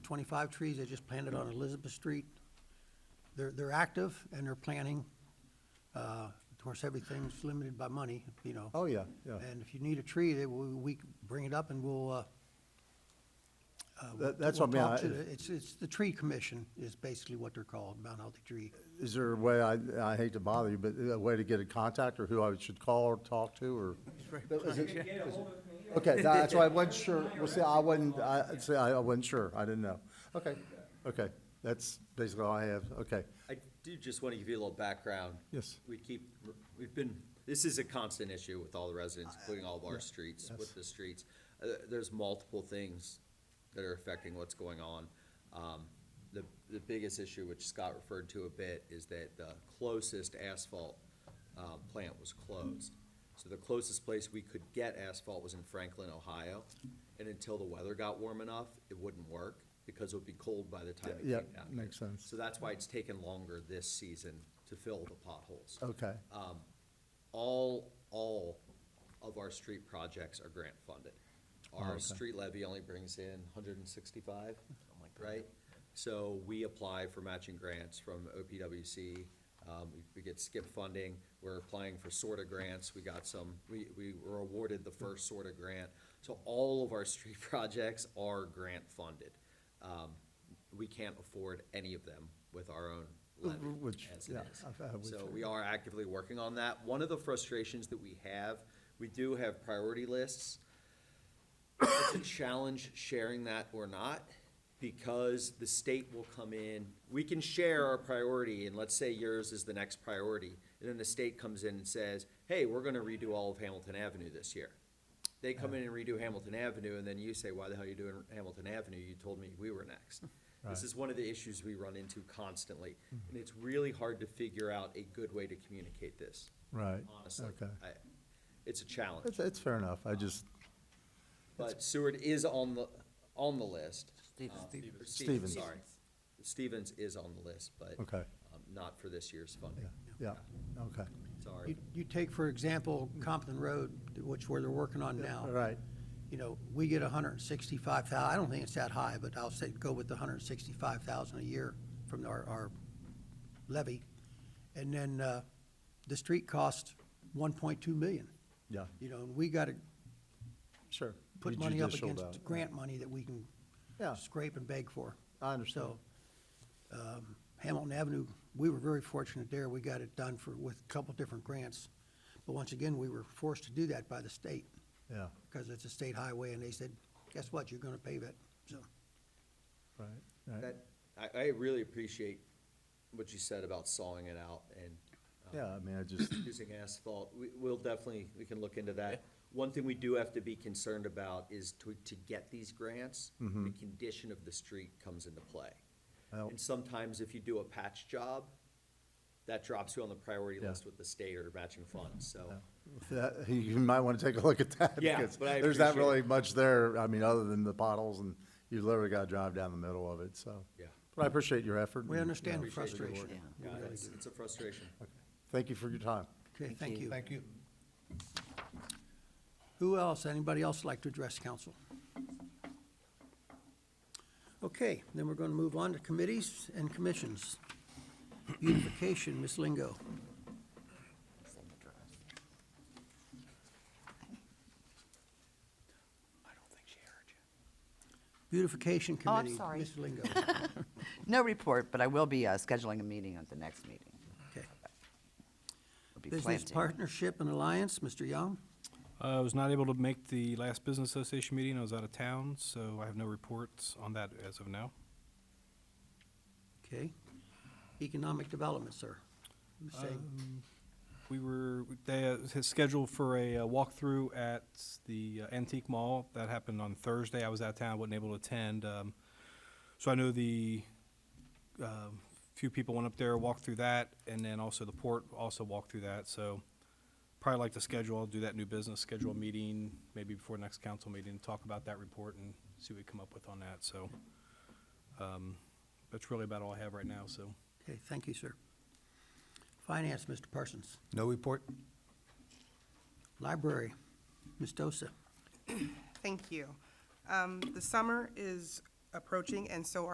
twenty-five trees they just planted on Elizabeth Street. They're, they're active and they're planting. Uh, of course, everything's limited by money, you know. Oh, yeah, yeah. And if you need a tree, they, we, we can bring it up and we'll, uh, uh, That- that's we'll what I mean, talk I- to the- It's, it's the tree commission is basically what they're called, Mount Healthy Tree. Is there a way, I, I hate to bother you, but a way to get in contact or who I should call or talk to or? Is it- is it- Okay, that's why I wasn't sure. Well, see, I wasn't, I, see, I I wasn't sure. I didn't know. Okay, okay. That's basically all I have. Okay. I do just want to give you a little background. Yes. We keep, we've been, this is a constant issue with all the residents, including all of our streets, yes. with the streets. Uh, there's multiple things that are affecting what's going on. Um, the, the biggest issue, which Scott referred to a bit, is that the closest asphalt, uh, plant was closed. So the closest place we could get asphalt was in Franklin, Ohio, and until the weather got warm enough, it wouldn't work, because it would be cold by the time it came Yeah, down. here. makes sense. So that's why it's taken longer this season to fill the potholes. Okay. All, all of our street projects are grant funded. Oh, Our street levy only brings in hundred and sixty-five, Oh right? So we apply for matching grants from OPWC, um, we- we get skip funding, we're applying for sorta grants, we got some, we, we were awarded the first sorta grant. So all of our street projects are grant funded. Um, we can't afford any of them with our own levy Which, as it yeah, is. I've- I would So think. we are actively working on that. One of the frustrations that we have, we do have priority lists. It's a challenge sharing that or not, because the state will come in, we can share our priority, and let's say yours is the next priority. And then the state comes in and says, hey, we're gonna redo all of Hamilton Avenue this year. They come in and redo Hamilton Avenue, and then you say, why the hell are you doing Hamilton Avenue? You told me we were next. This Right. Hmm. is one of the issues we run into constantly, and it's really hard to figure out a good way to communicate this, Right. honestly. Okay. I- It's a challenge, It's, it's fair enough. I just, but Seward is on the, on the list. Stevens. Uh, Stevens. Stevens, Stevens. sorry. Stevens is on the list, but. Okay. um, Not for this year's funding, yeah, okay. You, sorry. you take, for example, Compton Road, which where they're working on now. All right. You know, we get a hundred and sixty-five thousand. I don't think it's that high, but I'll say go with the hundred and sixty-five thousand a year from our, our levy. And then, uh, the street costs one point two million, Yeah, you know, and we gotta sure. put Be money up judicial about against it. grant money that we can Yeah. scrape and beg for. I understand. So, um, Hamilton Avenue, we were very fortunate there. We got it done for, with a couple different grants. But once again, we were forced to do that by the state Yeah, because it's a state highway and they said, guess what? You're gonna pave it. So, right, right. That, I, I really appreciate what you said about sawing it out and. um, Yeah, I mean, I just, using asphalt, we, we'll definitely, we can look into that. One thing we do have to be concerned about is to, to get these grants, the condition of the street comes into play. Mm-hmm. Well- And sometimes if you do a patch job, that drops you on the priority Yeah. list with the state or matching funds, so. that- you might want to take a look at that. Yeah, because but I There's not appreciate it. really much there, I mean, other than the potholes and you literally got to drive down the middle of it, so. Yeah. But I appreciate your effort. we and, understand Mm-hmm. yeah, the appreciate your work. frustration. We Yeah, really it's, do. it's a frustration. Thank you for your time. Okay, thank you. Thank you. Who else, anybody else like to address council? Okay, then we're gonna move on to committees and commissions. Beautification, Ms. Lingo. Beautification Oh, I'm Committee, sorry. Ms. Lingo. No report, but I will be uh, scheduling a meeting at the next meeting. Okay. It'll be Business planting. Partnership and Alliance, Mr. Young. Uh, I was not able to make the last Business Association meeting. I was out of town, so I have no reports on that as of now. Okay. Economic Development, sir. Ms. Sagan. We were, they uh, had scheduled for a uh, walkthrough at the uh, Antique Mall. That happened on Thursday. I was out of town, wasn't able to attend. Um, So I know the, um, few people went up there, walked through that, and then also the port also walked through that. So probably like to schedule, I'll do that new business, schedule a meeting, maybe before next council meeting, talk about that report and see what we come up with on that. So um, that's really about all I have right now, so. Okay, thank you, sir. Finance, Mr. Parsons. No report? Library, Ms. Dosa. Thank you. Um, The summer is approaching, and so